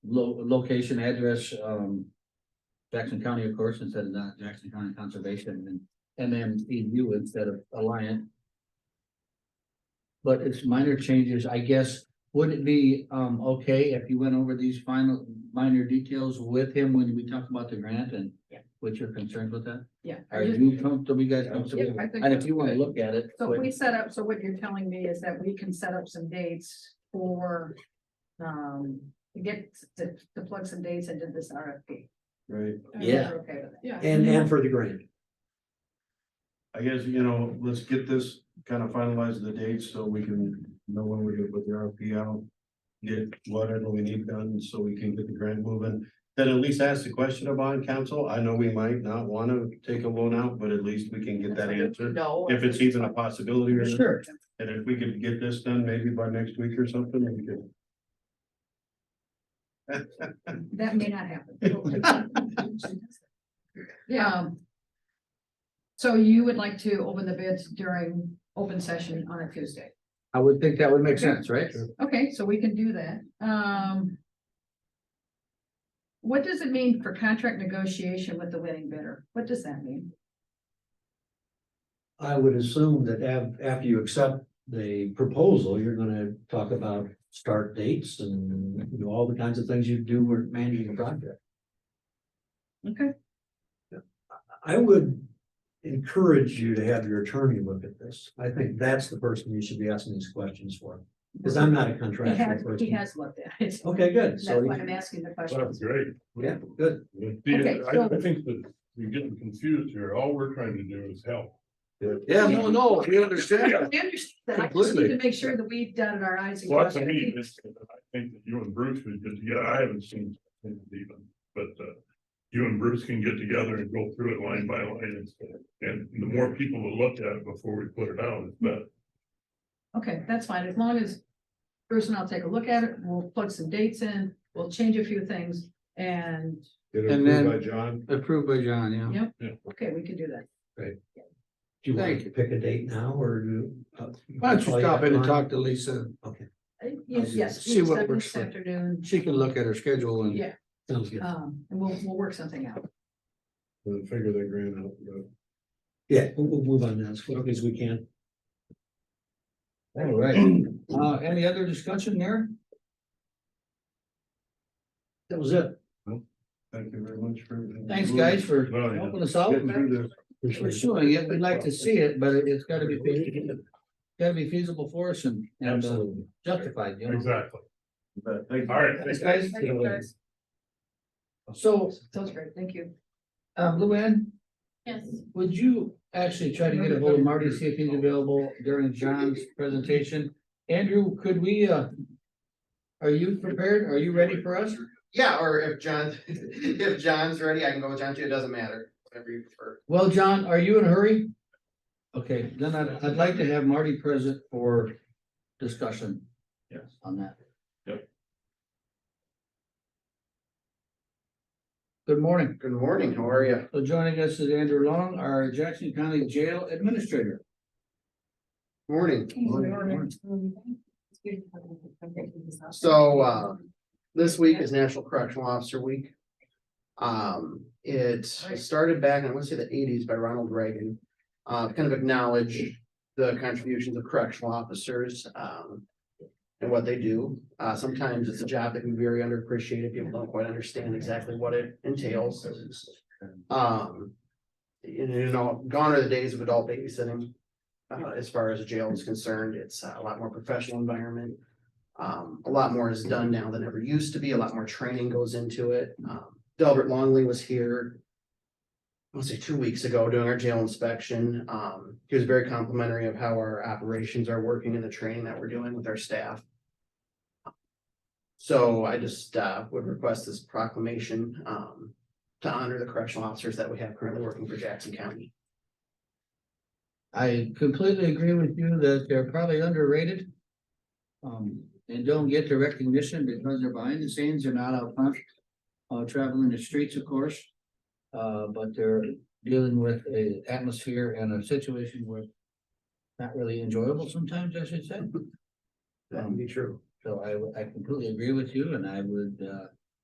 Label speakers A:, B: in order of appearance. A: lo- location, address, um. Jackson County, of course, instead of not Jackson County Conservation and MMEU instead of Alliant. But it's minor changes, I guess. Would it be, um, okay if you went over these final, minor details with him when we talk about the grant and?
B: Yeah.
A: What you're concerned with that?
B: Yeah. I
A: Are
B: just-
A: you comfortable, you guys comfortable?
B: Yeah, I think
A: And if
B: that's
A: you wanna
B: good.
A: look at it.
B: So
A: but-
B: if we set up, so what you're telling me is that we can set up some dates for, um, to get, to, to plug some dates into this RFP.
C: Right,
A: Yeah.
B: Okay with that.
D: And, and for the grant.
C: I guess, you know, let's get this kind of finalized the dates so we can know when we're gonna put the RFP out. Get whatever we need done so we can get the grant moving, then at least ask the question of bond council, I know we might not wanna take a loan out, but at least we can get that answered.
B: No.
C: If it's even a possibility or, not.
A: Sure.
C: and if we could get this done maybe by next week or something, we could.
B: That may not happen. Yeah. So you would like to open the bids during open session on a Tuesday?
A: I would think that would make sense, right?
B: Okay, so we can do that, um. What does it mean for contract negotiation with the winning bidder? What does that mean?
D: I would assume that af- after you accept the proposal, you're gonna talk about start dates and you know, all the kinds of things you do when managing a project.
B: Okay.
D: I would encourage you to have your attorney look at this. I think that's the person you should be asking these questions for, because I'm not a
B: He has,
D: contractual
B: he
D: person.
B: has looked at it,
D: Okay, good.
B: that's
D: So,
B: why I'm
D: you-
B: asking the
E: That
B: question.
E: was great.
D: yeah, good.
B: Okay,
E: Yeah, I, I think that you're getting confused here. All we're trying to do is help.
A: Yeah, no, no, we understand.
B: I understand that, I just need to make sure that we've done our eyes. and
E: Lots of
B: crossed our
E: me,
B: T's.
E: this, I think that you and Bruce would get together. I haven't seen it even, but, uh, you and Bruce can get together and go through it line by line. and- And the more people that look at it before we put it out, it's better.
B: Okay, that's fine, as long as Bruce and I'll take a look at it, we'll plug some dates in, we'll change a few things, and,
C: Get
A: And then-
C: approved by John,
A: Approved by John, yeah.
B: yep,
E: Yeah.
B: okay, we can do that.
D: Do you want
A: Thank
D: to pick a date now or? do- uh,
A: Why don't you
D: call
A: stop in and
D: back
A: talk to Lisa?
B: Uh, Yes, yes.
A: See what
B: this
A: works for-
B: Afternoon,
A: She can look at her schedule and.
B: Yeah.
D: on? Sounds good.
B: um, and we'll, we'll work something out.
C: and figure that grant out, but-
D: Yeah, we'll, we'll move on now as quickly as we can.
A: All right. Uh, any other discussion there?
D: That was it.
C: thank you very much for. everything.
A: Thanks, guys, for
E: Well, yeah.
A: helping us out.
C: Get through this.
A: Pursuing it, we'd like to see it, but it's gotta be, feasible. gotta be feasible for us and, and uh,
D: Absolutely.
A: justified, you know?
E: Exactly.
C: But thank you.
E: All right.
A: Thanks, guys.
B: Thank you, guys.
A: So,
B: Sounds great, thank you.
A: um, Luann,
B: Yes.
A: would you actually try to get a hold of Marty, see if he's available during John's presentation? Andrew, could we, uh, are you prepared? Are you ready for us?
F: Yeah, or if John, if John's ready, I can go with John too. It doesn't matter, whatever you prefer.
A: Well, John, are you in a hurry? Okay, then I'd, I'd like to have Marty present for discussion.
E: Yes.
A: On that.
E: Yep.
A: Good morning.
F: Good morning, how are you?
A: So joining us is Andrew Long, our Jackson County Jail Administrator.
F: Morning. So, uh, This week is National Correctional Officer Week. Um, it started back, in, I want to say the eighties by Ronald Reagan. Uh, to kind of acknowledge the contributions of correctional officers, um. And what they do. Uh, sometimes it's a job that can be very underappreciated. People don't quite understand exactly what it entails. Um. You know, gone are the days of adult babysitting. Uh, as far as jail is concerned, it's a lot more professional environment. Um, a lot more is done now than ever used to be. A lot more training goes into it. Um, Delbert Longley was here. I want to say two weeks ago doing our jail inspection. Um, he was very complimentary of how our operations are working and the training that we're doing with our staff. So I just, uh, would request this proclamation, um, to honor the correctional officers that we have currently working for Jackson County.
A: I completely agree with you that they're probably underrated. Um, and don't get the recognition because they're behind the scenes, they're not out front. Uh, traveling the streets, of course. Uh, but they're dealing with a atmosphere and a situation where. Not really enjoyable sometimes, I should say.
D: That would be true.
A: So I, would- I completely agree with you and I would, uh,